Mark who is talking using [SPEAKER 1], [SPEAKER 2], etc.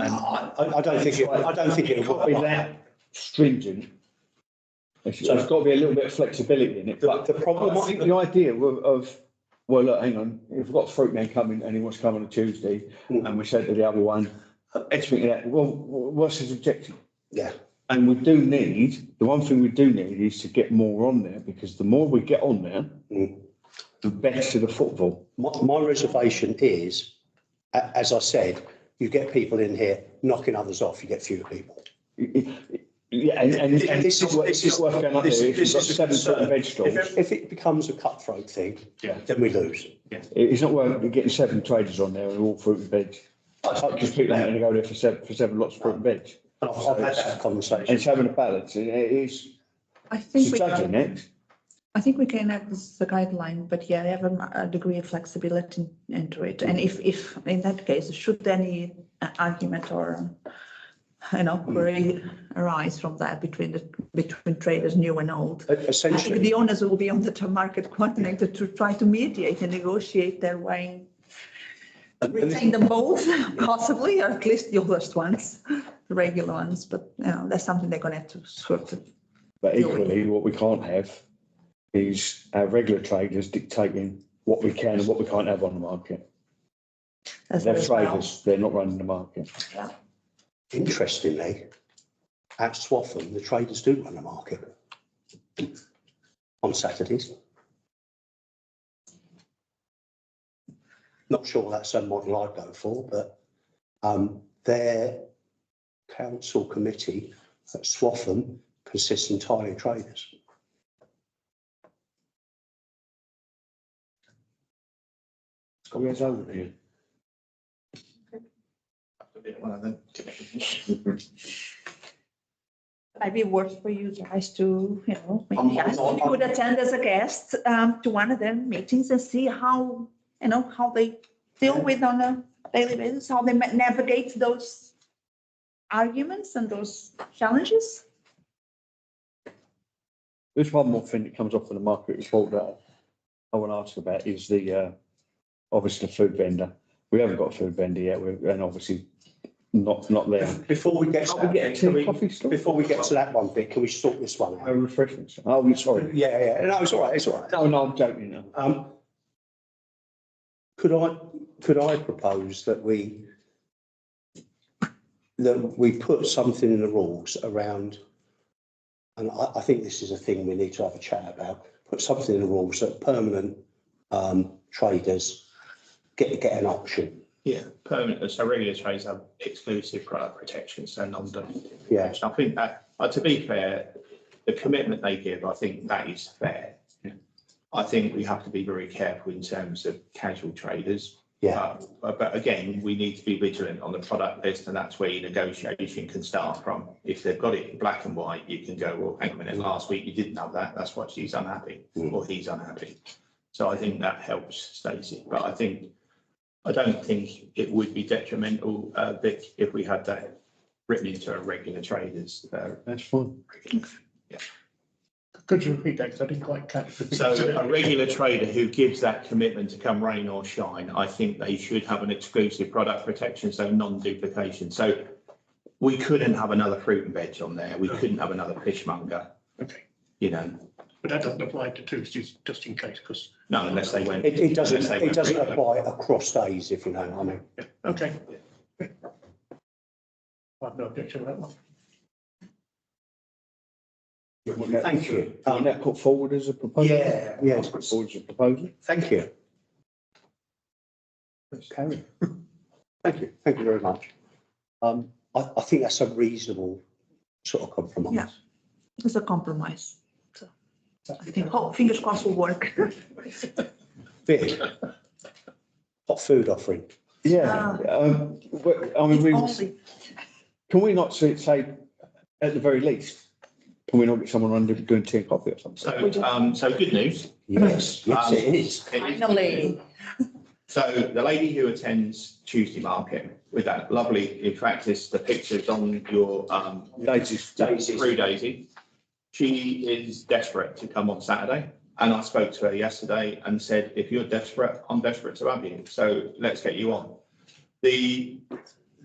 [SPEAKER 1] I, I don't think, it- I don't think it'll
[SPEAKER 2] Can't be
[SPEAKER 1] work.
[SPEAKER 2] that stringent. There's there's got to be a little bit of flexibility in it,
[SPEAKER 1] The,
[SPEAKER 2] but
[SPEAKER 1] the problem,
[SPEAKER 2] I think the idea of, of, well, look, hang on, if we've got a fruit man coming and he wants to come on a Tuesday
[SPEAKER 1] Mm.
[SPEAKER 2] and we said to the other one, expect that, well, wh- what's his objective?
[SPEAKER 1] yeah,
[SPEAKER 2] And we do need, the one thing we do need is to get more on there because the more we get on there,
[SPEAKER 1] Mm.
[SPEAKER 2] the better the football.
[SPEAKER 1] my, my reservation is, a- as I said, you get people in here knocking others off, you get fewer people.
[SPEAKER 2] It- it- Yeah, and, and, and it's
[SPEAKER 1] This is-
[SPEAKER 2] not worth,
[SPEAKER 1] this
[SPEAKER 2] it's
[SPEAKER 1] is-
[SPEAKER 2] not worth going up
[SPEAKER 3] this-
[SPEAKER 2] there if you've
[SPEAKER 3] this
[SPEAKER 2] got
[SPEAKER 3] is a
[SPEAKER 2] seven sort of
[SPEAKER 3] concern.
[SPEAKER 2] vegetables.
[SPEAKER 3] If
[SPEAKER 1] If it becomes a cutthroat thing,
[SPEAKER 3] Yeah.
[SPEAKER 1] then we lose.
[SPEAKER 2] It- It's not worth getting seven traders on there and all fruit and veg.
[SPEAKER 1] I totally
[SPEAKER 2] Because people
[SPEAKER 1] agree with
[SPEAKER 2] aren't
[SPEAKER 1] that.
[SPEAKER 2] going to go there for seven, for seven lots of fruit and veg.
[SPEAKER 1] And I've, I've had that
[SPEAKER 2] And it's
[SPEAKER 1] conversation.
[SPEAKER 2] having a balance and it is,
[SPEAKER 4] I think
[SPEAKER 2] it's
[SPEAKER 4] we,
[SPEAKER 2] judging
[SPEAKER 4] I
[SPEAKER 2] it.
[SPEAKER 4] think we can have this as a guideline, but yeah, have a, a degree of flexibility into it. And if, if, in that case, should any uh, argument or, you know, query arise from that between the, between traders, new and old,
[SPEAKER 1] E-
[SPEAKER 4] I think
[SPEAKER 1] Essentially,
[SPEAKER 4] the onus will be on the term market coordinator to try to mediate and negotiate their way,
[SPEAKER 1] and- and
[SPEAKER 4] retain them both possibly, or at least the oldest ones, the regular ones, but, you know, that's something they're gonna have to sort of
[SPEAKER 2] But equally, what we can't have is our regular traders dictating what we can and what we can't have on the market.
[SPEAKER 4] as
[SPEAKER 2] They're
[SPEAKER 4] well as well.
[SPEAKER 2] traders, they're not running the market.
[SPEAKER 4] Yeah.
[SPEAKER 1] interestingly, at Swaffham, the traders do run the market on Saturdays. Not sure that's a model I'd go for, but um, their council committee at Swaffham consists entirely of traders. It's got its own here.
[SPEAKER 4] Might be worth for you guys to, you know,
[SPEAKER 1] I'm-
[SPEAKER 4] maybe ask
[SPEAKER 1] I'm-
[SPEAKER 4] if you could attend as a guest um, to one of their meetings and see how, you know, how they deal with on a daily basis, how they ma- navigate those arguments and those challenges.
[SPEAKER 2] There's one more thing that comes off in the market report that I want to ask about is the, uh, obviously the food vendor. We haven't got a food vendor yet, we're, and obviously not, not there.
[SPEAKER 1] Before we get to that, bit, can we-
[SPEAKER 2] Coffee store?
[SPEAKER 1] before we get to that one bit, can we sort this one
[SPEAKER 2] Oh,
[SPEAKER 1] out?
[SPEAKER 2] refreshments. Oh, I'm sorry.
[SPEAKER 1] Yeah, yeah, no, it's all right, it's all right.
[SPEAKER 2] No, no, I'm joking now.
[SPEAKER 1] Um, could I, could I propose that we that we put something in the rules around, and I, I think this is a thing we need to have a chat about, put something in the rules that permanent um, traders get, get an option.
[SPEAKER 3] Yeah, permanent, so regular trades have exclusive product protections and non-dumping.
[SPEAKER 1] Yeah,
[SPEAKER 3] I think that, uh, to be fair, the commitment they give, I think that is fair.
[SPEAKER 2] Yeah.
[SPEAKER 3] I think we have to be very careful in terms of casual traders.
[SPEAKER 1] yeah,
[SPEAKER 3] Uh, But again, we need to be vigilant on the product list and that's where your negotiation can start from. If they've got it in black and white, you can go, well, hang on a minute, last week you didn't have that, that's why she's unhappy
[SPEAKER 1] Mm.
[SPEAKER 3] or he's unhappy. So I think that helps Stacey, but I think, I don't think it would be detrimental, uh, Vic, if we had that written into a regular traders. uh,
[SPEAKER 2] That's fine.
[SPEAKER 5] Could you repeat that? 'Cause I didn't quite catch. the bit
[SPEAKER 3] So
[SPEAKER 5] you said.
[SPEAKER 3] a regular trader who gives that commitment to come rain or shine, I think they should have an exclusive product protection, so non-duplication. So we couldn't have another fruit and veg on there. We couldn't have another fishmonger,
[SPEAKER 5] Okay,
[SPEAKER 3] you know,
[SPEAKER 5] but that doesn't apply to Tuesdays, just in case, because,
[SPEAKER 3] no, unless they went.
[SPEAKER 1] it, it doesn't,
[SPEAKER 3] unless they
[SPEAKER 1] it
[SPEAKER 3] went
[SPEAKER 1] doesn't
[SPEAKER 3] regular.
[SPEAKER 1] apply across days, if you know what I mean.
[SPEAKER 5] okay. I've no objection to that one.
[SPEAKER 1] Thank you.
[SPEAKER 2] And that put forward as a proposal?
[SPEAKER 1] Yeah, yeah.
[SPEAKER 2] Put forward as a proposal?
[SPEAKER 1] Thank you. Karen. Thank you, thank you very much. Um, I, I think that's a reasonable sort of
[SPEAKER 4] Yeah.
[SPEAKER 1] compromise.
[SPEAKER 4] It's a compromise. So I think, hope, fingers crossed will work.
[SPEAKER 1] Vic, hot food offering.
[SPEAKER 2] Yeah, um, but, I mean, we,
[SPEAKER 4] Only-
[SPEAKER 2] can we not say, say, at the very least, can we not get someone around doing tea and coffee or something?
[SPEAKER 1] uh,
[SPEAKER 3] So, um, so good news.
[SPEAKER 1] Yes, yes,
[SPEAKER 3] Um,
[SPEAKER 1] it is.
[SPEAKER 3] It is-
[SPEAKER 4] Finally.
[SPEAKER 3] So the lady who attends Tuesday market with that lovely, in practice, the pictures on your, um,
[SPEAKER 2] Daisy's,
[SPEAKER 1] Daisy.
[SPEAKER 3] through Daisy. She is desperate to come on Saturday, and I spoke to her yesterday and said, if you're desperate, I'm desperate to have you, so let's get you on. The